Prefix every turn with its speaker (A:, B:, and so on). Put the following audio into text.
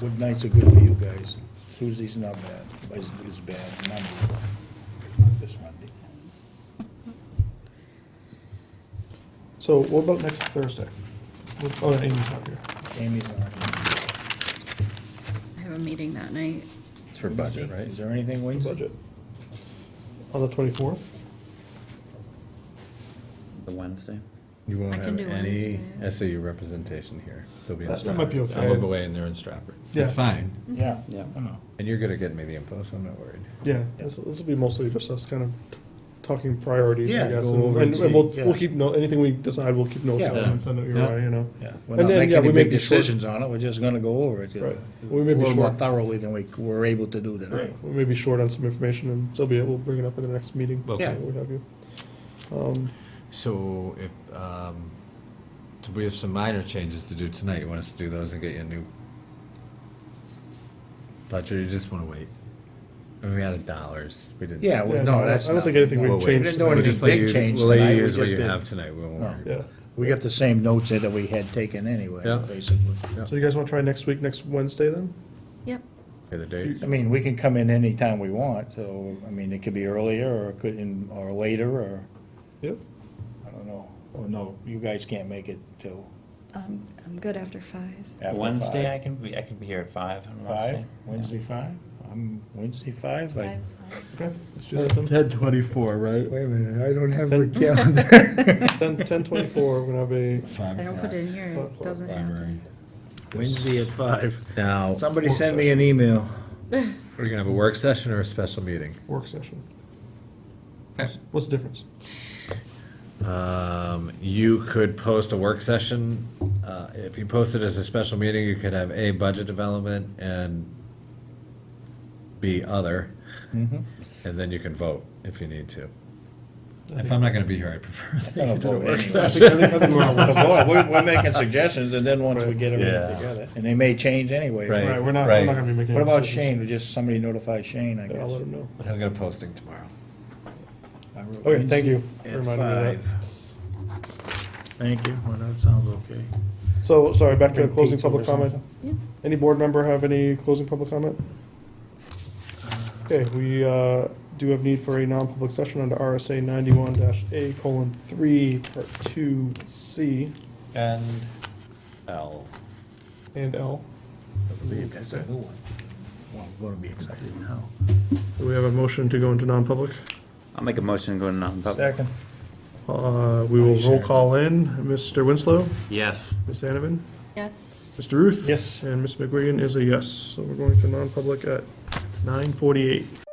A: What nights are good for you guys? Tuesday's not bad, Wednesday is bad, Monday, not this Monday.
B: So what about next Thursday? What- Oh, Amy's not here.
A: Amy's on.
C: I have a meeting that night.
D: It's for budget, right?
A: Is there anything Wednesday?
B: Budget. On the twenty-fourth?
D: The Wednesday?
E: You
C: I
E: won't
C: can
E: have
C: do
E: any
C: Wednesday.
E: SAU representation here. They'll be in
B: That- that might
E: Stratford.
B: be okay.
E: I'll look away and they're in Stratford.
B: Yeah.
E: That's fine.
A: Yeah.
D: Yeah.
A: I know.
E: And you're good at getting me the info, so I'm not worried.
B: Yeah, this, this will be mostly just us kind of t- talking priorities, I
A: Yeah,
B: guess.
A: go
B: And,
A: over
B: and
A: and
B: and we'll,
A: see,
B: we'll
A: yeah.
B: keep note, anything we decide, we'll keep notes
A: Yeah.
B: on and send it your
E: Yeah.
B: way, you know?
A: Yeah, we're
B: And
A: not
B: then,
A: making
B: yeah,
A: any
B: we may
A: big
B: be short.
A: decisions on it, we're just gonna go over it.
B: Right. We
A: A
B: may be
A: little more
B: short.
A: thoroughly than we were able to do tonight.
B: Right, we may be short on some information and so be it. We'll bring it up at the next meeting.
E: Okay.
A: Yeah.
B: What have you. Um,
E: So if, um, so we have some minor changes to do tonight. You want us to do those and get you a new budget? or You just want to wait? I mean, We added dollars. We didn't.
A: Yeah,
B: Yeah,
A: well,
B: no,
A: no, that's
B: I
A: not.
B: don't think anything we
E: We'll wait.
B: changed
A: We didn't
B: tonight.
A: do
E: We'll
A: any
E: just let
A: big
E: you-
A: change
E: We'll
A: tonight,
E: let you
A: we
E: use what
A: just
E: you
A: did-
E: have tonight. We won't
A: No.
E: worry.
B: Yeah.
A: We got the same notes here that we had taken anyway,
E: Yeah.
A: basically.
B: So you guys want to try next week, next Wednesday then?
C: Yep.
E: Okay, the date?
A: I mean, we can come in anytime we want, so, I mean, it could be earlier, or it could, in- or later, or,
B: Yep.
A: I don't know. Oh, no, you guys can't make it till
F: Um, I'm good after five.
A: after five.
D: Wednesday, I can be, I can be here at five on Wednesday.
A: Five, Wednesday five? I'm Wednesday five, like,
F: Five's fine.
B: Okay, let's do that then.
E: Ten twenty-four, right?
G: Wait a minute, I don't have a
B: Ten-
G: calendar.
B: Ten, ten twenty-four, we're gonna have a,
C: I don't put it in here,
B: Clock,
C: it doesn't happen.
A: Wednesday at five.
E: Now,
A: Somebody send me an email.
E: we're gonna have a work session or a special meeting?
B: work session. What's- What's the difference?
E: Um, you could post a work session. Uh, if you post it as a special meeting, you could have A, budget development, and B, other.
A: Mm-hmm.
E: And then you can vote if you need to. If I'm not gonna be here, I prefer that you do a work
B: I
E: session.
B: think, I think- I think we're on
A: Well,
B: Wednesday.
A: boy, We're, we're making suggestions, and then once we get
E: Yeah.
A: everything together, and they may change anyway.
E: Right.
B: Right, we're not, we're
E: Right.
B: not gonna be making.
A: What
B: any
A: about
B: decisions.
A: Shane? Just somebody notify Shane, I
B: Yeah, I'll let
A: guess.
B: him know.
E: I'll get a posting tomorrow.
A: I wrote
B: Okay, thank you
A: Wednesday
B: for
A: At
B: reminding me of that.
A: five. Thank you, well, that sounds okay.
B: So, sorry, back to
A: Bring
B: closing
A: pizza or
B: public comment.
C: Yeah.
B: Any board member have any closing public comment? Okay, we uh, do have need for a non-public session under RSA ninety-one dash A colon three, part two, C
D: And L.
B: and L.
A: I believe that's a new one. Well, I'm gonna be excited now.
B: Do we have a motion to go into non-public?
D: I'll make a motion to go to non-public.
A: Second.
B: Uh, We will roll call in, Mr. Winslow,
D: Yes.
B: Ms. Anavin,
C: Yes.
B: Mr. Ruth.
A: Yes.
B: And Ms. McGuigan is a yes, so we're going to non-public at nine forty-eight.